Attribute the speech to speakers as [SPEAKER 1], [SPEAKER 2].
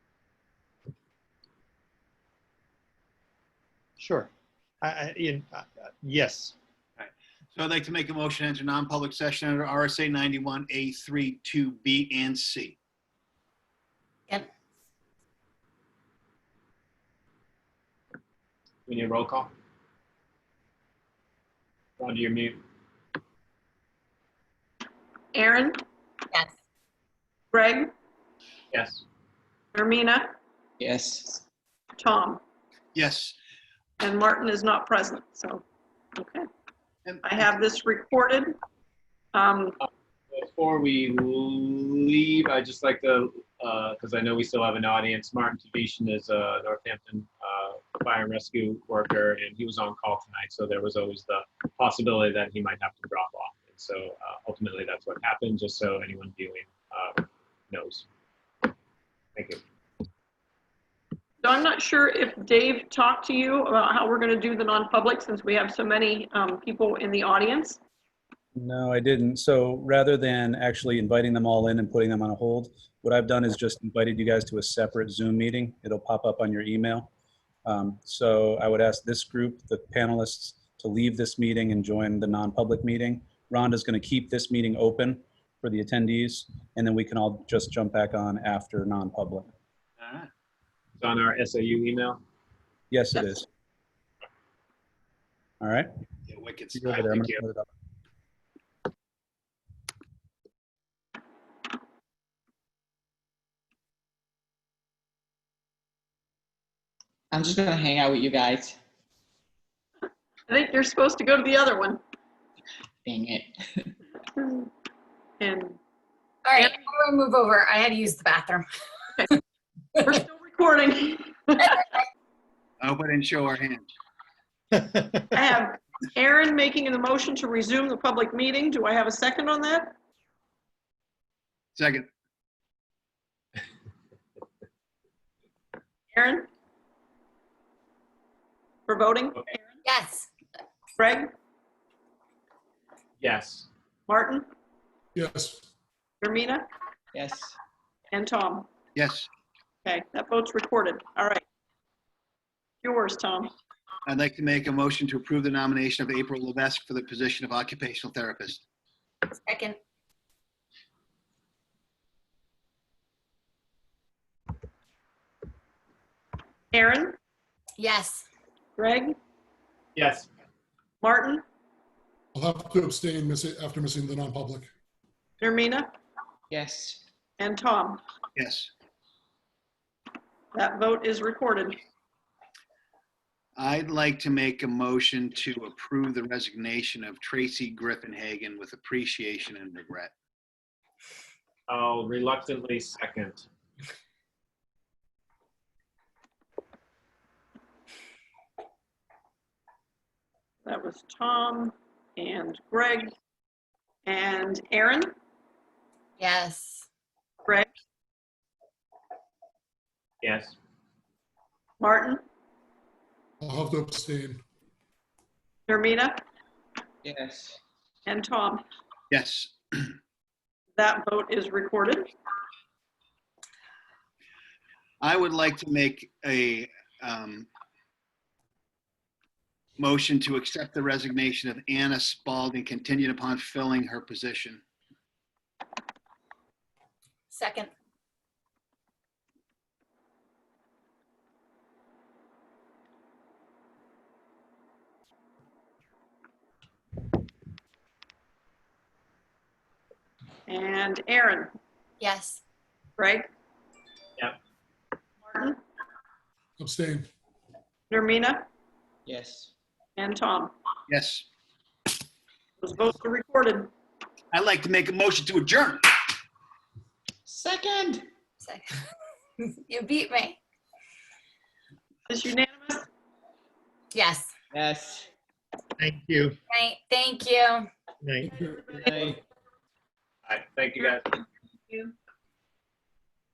[SPEAKER 1] Sure. I, I, Ian, I- I- yes,
[SPEAKER 2] So I'd like to make a motion to enter non-public session under RSA 91A3, 2B, and C.
[SPEAKER 3] We need a roll call. Roger, you're mute.
[SPEAKER 4] Aaron,
[SPEAKER 5] Yes.
[SPEAKER 4] Greg,
[SPEAKER 3] Yes.
[SPEAKER 4] Ermina,
[SPEAKER 6] Yes.
[SPEAKER 4] Tom,
[SPEAKER 2] Yes.
[SPEAKER 4] and Martin is not present, so, okay.
[SPEAKER 2] And-
[SPEAKER 4] I have this recorded. Um,
[SPEAKER 3] Before we leave, I'd just like to, because I know we still have an audience, Martin Tavishian is a Northampton uh, fire and rescue worker, and he was on call tonight, so there was always the possibility that he might have to drop off. And so uh, ultimately, that's what happened, just so anyone viewing uh, knows. Thank you.
[SPEAKER 4] so I'm not sure if Dave talked to you about how we're gonna do the non-public since we have so many, um, people in the audience.
[SPEAKER 7] No, I didn't. So rather than actually inviting them all in and putting them on a hold, what I've done is just invited you guys to a separate Zoom meeting. It'll pop up on your email. Um, So I would ask this group, the panelists, to leave this meeting and join the non-public meeting. Rhonda's going to keep this meeting open for the attendees, and then we can all just jump back on after non-public.
[SPEAKER 2] All right.
[SPEAKER 3] It's on our SAU email.
[SPEAKER 7] Yes, it is. All right.
[SPEAKER 2] Yeah, wicked
[SPEAKER 7] You go
[SPEAKER 2] stuff.
[SPEAKER 7] over there. I'm
[SPEAKER 2] Thank you.
[SPEAKER 7] gonna put it up.
[SPEAKER 6] I'm just gonna hang out with you guys.
[SPEAKER 4] I think you're supposed to go to the other one.
[SPEAKER 6] Dang it.
[SPEAKER 4] And
[SPEAKER 5] All right, I'm gonna move over. I had to use the bathroom.
[SPEAKER 4] we're still recording.
[SPEAKER 2] I hope I didn't show our hand.
[SPEAKER 4] I have Aaron making the motion to resume the public meeting. Do I have a second on that?
[SPEAKER 2] Second.
[SPEAKER 4] Aaron? For voting?
[SPEAKER 5] Yes.
[SPEAKER 4] Greg?
[SPEAKER 3] Yes.
[SPEAKER 4] Martin?
[SPEAKER 8] Yes.
[SPEAKER 4] Jermina?
[SPEAKER 6] Yes.
[SPEAKER 4] And Tom?
[SPEAKER 2] Yes.
[SPEAKER 4] Okay, that vote's recorded. All right. Yours, Tom.
[SPEAKER 2] I'd like to make a motion to approve the nomination of April Levesque for the position of occupational therapist.
[SPEAKER 5] Second.
[SPEAKER 4] Aaron?
[SPEAKER 5] Yes.
[SPEAKER 4] Greg?
[SPEAKER 3] Yes.
[SPEAKER 4] Martin?
[SPEAKER 8] I'll have to abstain missi- after missing the non-public.
[SPEAKER 4] Jermina?
[SPEAKER 6] Yes.
[SPEAKER 4] And Tom?
[SPEAKER 2] Yes.
[SPEAKER 4] That vote is recorded.
[SPEAKER 2] I'd like to make a motion to approve the resignation of Tracy Griffin Hagan with appreciation and regret.
[SPEAKER 3] I'll reluctantly second.
[SPEAKER 4] That was Tom and Greg and Aaron?
[SPEAKER 5] Yes.
[SPEAKER 4] Greg?
[SPEAKER 3] Yes.
[SPEAKER 4] Martin?
[SPEAKER 8] I'll have to abstain.
[SPEAKER 4] Jermina?
[SPEAKER 6] Yes.
[SPEAKER 4] And Tom?
[SPEAKER 2] Yes.
[SPEAKER 4] That vote is recorded.
[SPEAKER 2] I would like to make a um, motion to accept the resignation of Anna Spalding contingent upon filling her position.
[SPEAKER 5] Second.
[SPEAKER 4] And Aaron?
[SPEAKER 5] Yes.
[SPEAKER 4] Greg?
[SPEAKER 3] Yep.
[SPEAKER 4] Martin?
[SPEAKER 8] Abstain.
[SPEAKER 4] Jermina?
[SPEAKER 6] Yes.
[SPEAKER 4] And Tom?
[SPEAKER 2] Yes.
[SPEAKER 4] Those votes are recorded.
[SPEAKER 2] I'd like to make a motion to adjourn.
[SPEAKER 6] Second.
[SPEAKER 5] Second. You beat me.
[SPEAKER 4] Is unanimous?
[SPEAKER 5] Yes.
[SPEAKER 6] Yes.
[SPEAKER 1] thank you.
[SPEAKER 5] Right. Thank you.
[SPEAKER 1] Night.
[SPEAKER 6] Good night.
[SPEAKER 3] All right. Thank you, guys.
[SPEAKER 4] you.